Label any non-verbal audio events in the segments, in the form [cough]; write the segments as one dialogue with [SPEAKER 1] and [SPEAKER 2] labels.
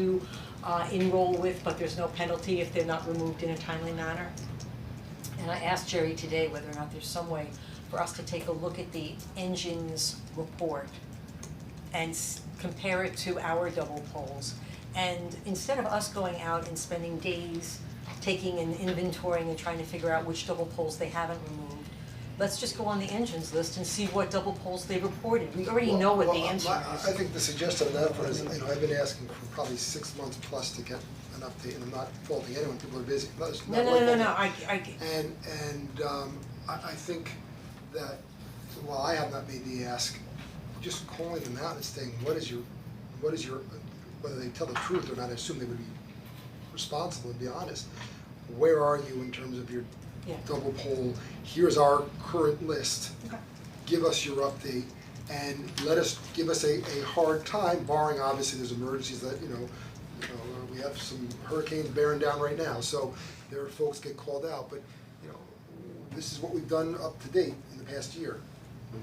[SPEAKER 1] to uh, enroll with, but there's no penalty if they're not removed in a timely manner. And I asked Jerry today whether or not there's some way for us to take a look at the engines report and s- compare it to our double poles. And instead of us going out and spending days taking and inventorying and trying to figure out which double poles they haven't removed, let's just go on the engines list and see what double poles they reported. We already know what the
[SPEAKER 2] Well, well,
[SPEAKER 1] answer is.
[SPEAKER 2] my- I think the suggestion on that front is, you know, I've been asking for probably six months plus to get an update, and I'm not faulting anyone, people are busy, No, it's
[SPEAKER 1] No,
[SPEAKER 2] not
[SPEAKER 1] no,
[SPEAKER 2] like
[SPEAKER 1] no, no,
[SPEAKER 2] that.
[SPEAKER 1] no, I, I,
[SPEAKER 2] And and um I I think that while I have not made the ask, just calling them out and saying, what is your, what is your, whether they tell the truth or not, I assume they would be responsible and be honest. Where are you in terms of your
[SPEAKER 1] Yeah.
[SPEAKER 2] double poll? Here's our current list.
[SPEAKER 1] Okay.
[SPEAKER 2] Give us your update and let us, give us a a hard time barring obviously there's emergencies that, you know, you know, uh, we have some hurricanes bearing down right now, so there are folks get called out, but you know, this is what we've done up to date in the past year.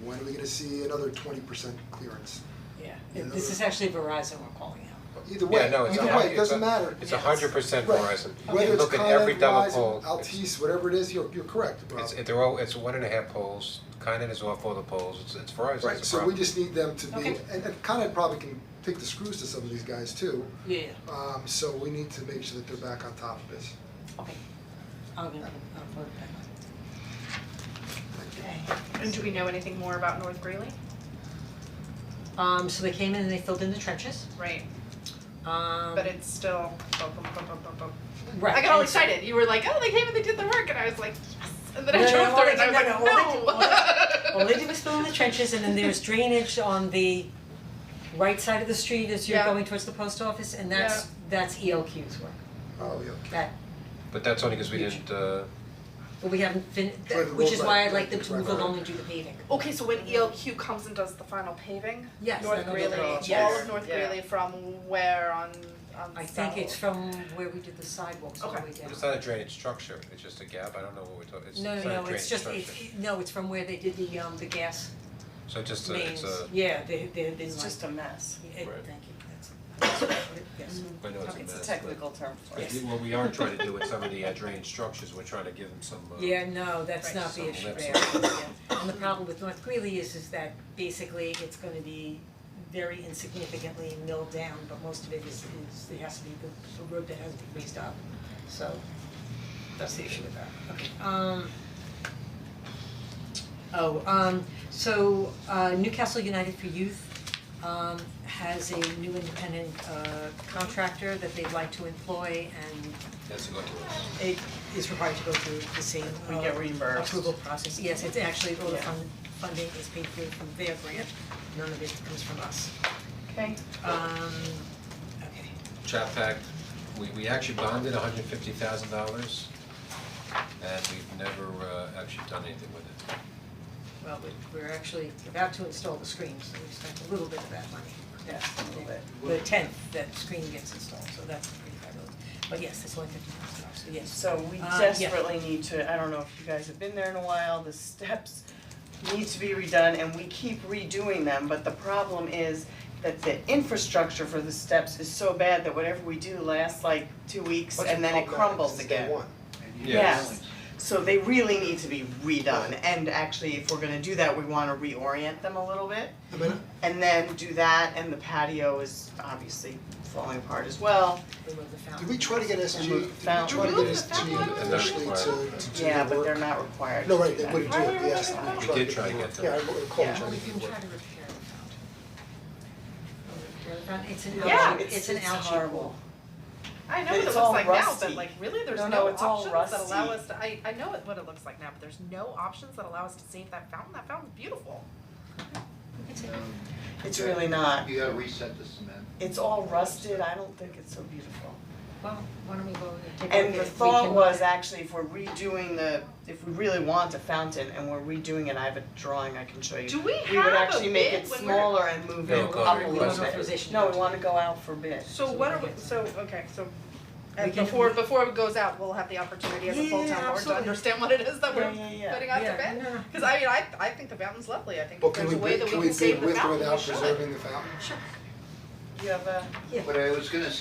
[SPEAKER 2] When are we gonna see another twenty percent clearance?
[SPEAKER 1] yeah,
[SPEAKER 2] You know-
[SPEAKER 1] this is actually Verizon we're calling out.
[SPEAKER 2] Either way,
[SPEAKER 3] Yeah, no, it's a
[SPEAKER 2] either
[SPEAKER 3] hun-
[SPEAKER 2] way, it doesn't
[SPEAKER 3] it's a-
[SPEAKER 2] matter.
[SPEAKER 3] It's a hundred percent
[SPEAKER 2] Right.
[SPEAKER 3] Verizon,
[SPEAKER 2] Whether
[SPEAKER 3] you
[SPEAKER 2] it's
[SPEAKER 3] look at every
[SPEAKER 2] Con Ed,
[SPEAKER 3] double
[SPEAKER 2] Verizon,
[SPEAKER 3] pole, it's,
[SPEAKER 2] Altice, whatever it is, you're you're correct, Rob.
[SPEAKER 3] it's, they're all, it's one and a half poles, Con Ed is off all the poles, it's, it's Verizon's
[SPEAKER 2] Right,
[SPEAKER 3] the
[SPEAKER 2] so we
[SPEAKER 3] problem.
[SPEAKER 2] just need them to be,
[SPEAKER 1] Okay.
[SPEAKER 2] and and Con Ed probably can take the screws to some of these guys too.
[SPEAKER 1] Yeah, yeah.
[SPEAKER 2] Um so we need to make sure that they're back on top of this.
[SPEAKER 1] Okay. I'll get, I'll put it back on.
[SPEAKER 4] And do we know anything more about North Greeley?
[SPEAKER 1] Um, so they came in and they filled in the trenches,
[SPEAKER 4] Right,
[SPEAKER 1] um,
[SPEAKER 4] but it's still. bum, bum, bum, bum, bum, bum.
[SPEAKER 1] right,
[SPEAKER 4] I got all
[SPEAKER 1] and so-
[SPEAKER 4] excited. You were like, "Oh, they came and they did the work," and I was like, "Yes!" And then
[SPEAKER 1] No,
[SPEAKER 4] I
[SPEAKER 1] no,
[SPEAKER 4] drove
[SPEAKER 1] no,
[SPEAKER 4] through
[SPEAKER 1] all
[SPEAKER 4] it,
[SPEAKER 1] they
[SPEAKER 4] and
[SPEAKER 1] did-
[SPEAKER 4] I was
[SPEAKER 1] no, no,
[SPEAKER 4] like,
[SPEAKER 1] all
[SPEAKER 4] "No."
[SPEAKER 1] they did- All they did was fill in the trenches and then
[SPEAKER 4] [laughs]
[SPEAKER 1] there's drainage on the right side of the street as you're
[SPEAKER 4] Yeah.
[SPEAKER 1] going towards the post office and that's, that's ELQ's work,
[SPEAKER 2] Oh, yeah.
[SPEAKER 1] that,
[SPEAKER 3] But that's only because we
[SPEAKER 1] Huge.
[SPEAKER 3] didn't, uh,
[SPEAKER 1] but we haven't fin,
[SPEAKER 2] Right,
[SPEAKER 1] that- which is why I'd
[SPEAKER 2] right,
[SPEAKER 1] like them to
[SPEAKER 2] right,
[SPEAKER 1] move
[SPEAKER 2] right.
[SPEAKER 1] along and do the paving.
[SPEAKER 4] Okay, so when ELQ comes and does the final paving,
[SPEAKER 1] Yes,
[SPEAKER 4] North
[SPEAKER 1] then
[SPEAKER 4] Greeley,
[SPEAKER 1] they'll go out.
[SPEAKER 4] all of North
[SPEAKER 5] Yeah.
[SPEAKER 4] Greeley from where on on
[SPEAKER 1] I think it's
[SPEAKER 4] South?
[SPEAKER 1] from where we did the sidewalks all the way down.
[SPEAKER 3] it's not a drainage structure, it's just a gap, I don't know what we're talking, it's, it's
[SPEAKER 1] No,
[SPEAKER 3] not a
[SPEAKER 1] no, no,
[SPEAKER 3] drainage
[SPEAKER 1] it's just,
[SPEAKER 3] structure,
[SPEAKER 1] it's, no, it's from where they did the um, the gas
[SPEAKER 3] so just a,
[SPEAKER 1] mains,
[SPEAKER 3] it's a,
[SPEAKER 1] yeah, they, they, they
[SPEAKER 5] It's just a mess.
[SPEAKER 1] Yeah, Thank
[SPEAKER 3] Right.
[SPEAKER 1] you, that's, [coughs] that's what it- yes.
[SPEAKER 3] I know it's a mess,
[SPEAKER 5] It's a
[SPEAKER 3] but-
[SPEAKER 5] technical term for
[SPEAKER 3] but
[SPEAKER 5] it.
[SPEAKER 3] what we are trying to do with some of
[SPEAKER 1] [laughs]
[SPEAKER 3] the uh, drainage structures, we're trying to give them some, uh,
[SPEAKER 1] Yeah, no, that's
[SPEAKER 4] Right.
[SPEAKER 1] not the
[SPEAKER 3] Some
[SPEAKER 1] issue
[SPEAKER 3] lips.
[SPEAKER 1] there, yeah. And the problem with North Greeley is, is that basically it's gonna be very insignificantly milled down, but most of it is, is, it has to be the, the road that has to be raised up. So, that's the issue with that, okay, um. Oh, um, so, uh, Newcastle United for Youth, um, has a new independent, uh, contractor that they'd like to employ and
[SPEAKER 3] that's a good one.
[SPEAKER 1] it is required to go through the same
[SPEAKER 5] We get
[SPEAKER 1] uh,
[SPEAKER 5] reimbursed.
[SPEAKER 1] approval process, yes, it's actually, all the
[SPEAKER 5] Yeah.
[SPEAKER 1] fund, funding is paid through from their grant, none of it comes from us.
[SPEAKER 4] Okay.
[SPEAKER 1] Um, okay,
[SPEAKER 3] Chap Act, we we actually bonded hundred fifty thousand dollars and we've never uh actually done anything with it.
[SPEAKER 1] well, we, we're actually about to install the screen, so we spent a little bit of that money.
[SPEAKER 5] Yes, a little bit.
[SPEAKER 1] The tenth, that screen gets installed, so that's pretty fabulous, but yes, it's only fifty thousand dollars, so yes.
[SPEAKER 5] So we
[SPEAKER 1] Uh, yeah.
[SPEAKER 5] desperately need to, I don't know if you guys have been there in a while, the steps need to be redone and we keep redoing them, but the problem is that the infrastructure for the steps is so bad that whatever we do lasts like two weeks and then it crumbles again. Yes, so they really need to be redone and actually if we're gonna do that, we wanna reorient them a little bit.
[SPEAKER 2] I mean,
[SPEAKER 5] And then do that and the patio is obviously falling apart as well.
[SPEAKER 1] Remove the fountain.
[SPEAKER 2] Did we try to get SG, did we
[SPEAKER 5] Remove
[SPEAKER 2] try to
[SPEAKER 5] fountain.
[SPEAKER 2] get
[SPEAKER 4] Remove the
[SPEAKER 2] SG
[SPEAKER 4] fountain.
[SPEAKER 2] initially to to do
[SPEAKER 5] Yeah,
[SPEAKER 2] the
[SPEAKER 5] but they're
[SPEAKER 2] work?
[SPEAKER 5] not required
[SPEAKER 2] No,
[SPEAKER 5] to
[SPEAKER 2] right,
[SPEAKER 5] do
[SPEAKER 2] they
[SPEAKER 5] that.
[SPEAKER 2] wouldn't do it, yes.
[SPEAKER 3] We did try to get them.
[SPEAKER 2] Yeah, I recall
[SPEAKER 5] Yeah.
[SPEAKER 2] trying
[SPEAKER 1] Well,
[SPEAKER 2] to
[SPEAKER 1] we
[SPEAKER 2] get
[SPEAKER 1] can
[SPEAKER 2] the work.
[SPEAKER 1] try to repair the fountain. Repair the fountain, it's an
[SPEAKER 5] Yeah,
[SPEAKER 1] algae,
[SPEAKER 5] it's
[SPEAKER 1] it's an
[SPEAKER 5] it's
[SPEAKER 1] algae.
[SPEAKER 5] horrible.
[SPEAKER 4] I know what it
[SPEAKER 5] It's
[SPEAKER 4] looks
[SPEAKER 5] all
[SPEAKER 4] like now,
[SPEAKER 5] rusty.
[SPEAKER 4] but like really, there's
[SPEAKER 5] No,
[SPEAKER 4] no,
[SPEAKER 5] no, it's all
[SPEAKER 4] options that allow
[SPEAKER 5] rusty.
[SPEAKER 4] us to. I I know it- what it looks like now, but there's no options that allow us to save that fountain. That fountain's beautiful.
[SPEAKER 5] It's really not.
[SPEAKER 6] um, You gotta reset the cement.
[SPEAKER 5] It's all rusted. I don't think it's so beautiful.
[SPEAKER 1] Well, why don't we go and take a look at it?
[SPEAKER 5] And the
[SPEAKER 1] We
[SPEAKER 5] thought
[SPEAKER 1] can-
[SPEAKER 5] was actually if we're redoing the, if we really want a fountain and we're redoing it, I have a drawing I can show you.
[SPEAKER 4] Do we
[SPEAKER 5] We would
[SPEAKER 4] have a
[SPEAKER 5] actually make
[SPEAKER 4] bid
[SPEAKER 5] it
[SPEAKER 4] when we're-
[SPEAKER 5] smaller and move
[SPEAKER 3] No,
[SPEAKER 5] it
[SPEAKER 3] go
[SPEAKER 5] up
[SPEAKER 3] for
[SPEAKER 5] a
[SPEAKER 3] it.
[SPEAKER 1] We want
[SPEAKER 5] little bit.
[SPEAKER 1] authorization.
[SPEAKER 5] No, we wanna go out for bid.
[SPEAKER 4] So what are we, so, okay, so,
[SPEAKER 1] We
[SPEAKER 4] and
[SPEAKER 1] can-
[SPEAKER 4] before, before it goes out, we'll have the opportunity as a full
[SPEAKER 1] Yeah,
[SPEAKER 4] town board to
[SPEAKER 1] absolutely.
[SPEAKER 4] understand what it is that we're
[SPEAKER 5] Yeah, yeah, yeah.
[SPEAKER 4] putting out to
[SPEAKER 1] Yeah,
[SPEAKER 4] bid?
[SPEAKER 1] no, no.
[SPEAKER 4] Cause I mean, I, I think the fountain's lovely, I think
[SPEAKER 2] Well,
[SPEAKER 4] if
[SPEAKER 2] can
[SPEAKER 4] there's
[SPEAKER 2] we,
[SPEAKER 4] a way
[SPEAKER 2] bid-
[SPEAKER 4] that we
[SPEAKER 2] can we
[SPEAKER 4] can save
[SPEAKER 2] bid
[SPEAKER 4] the
[SPEAKER 2] with or
[SPEAKER 4] fountain, we
[SPEAKER 2] without
[SPEAKER 4] should.
[SPEAKER 2] preserving the fountain?
[SPEAKER 5] You have a?
[SPEAKER 6] But I was gonna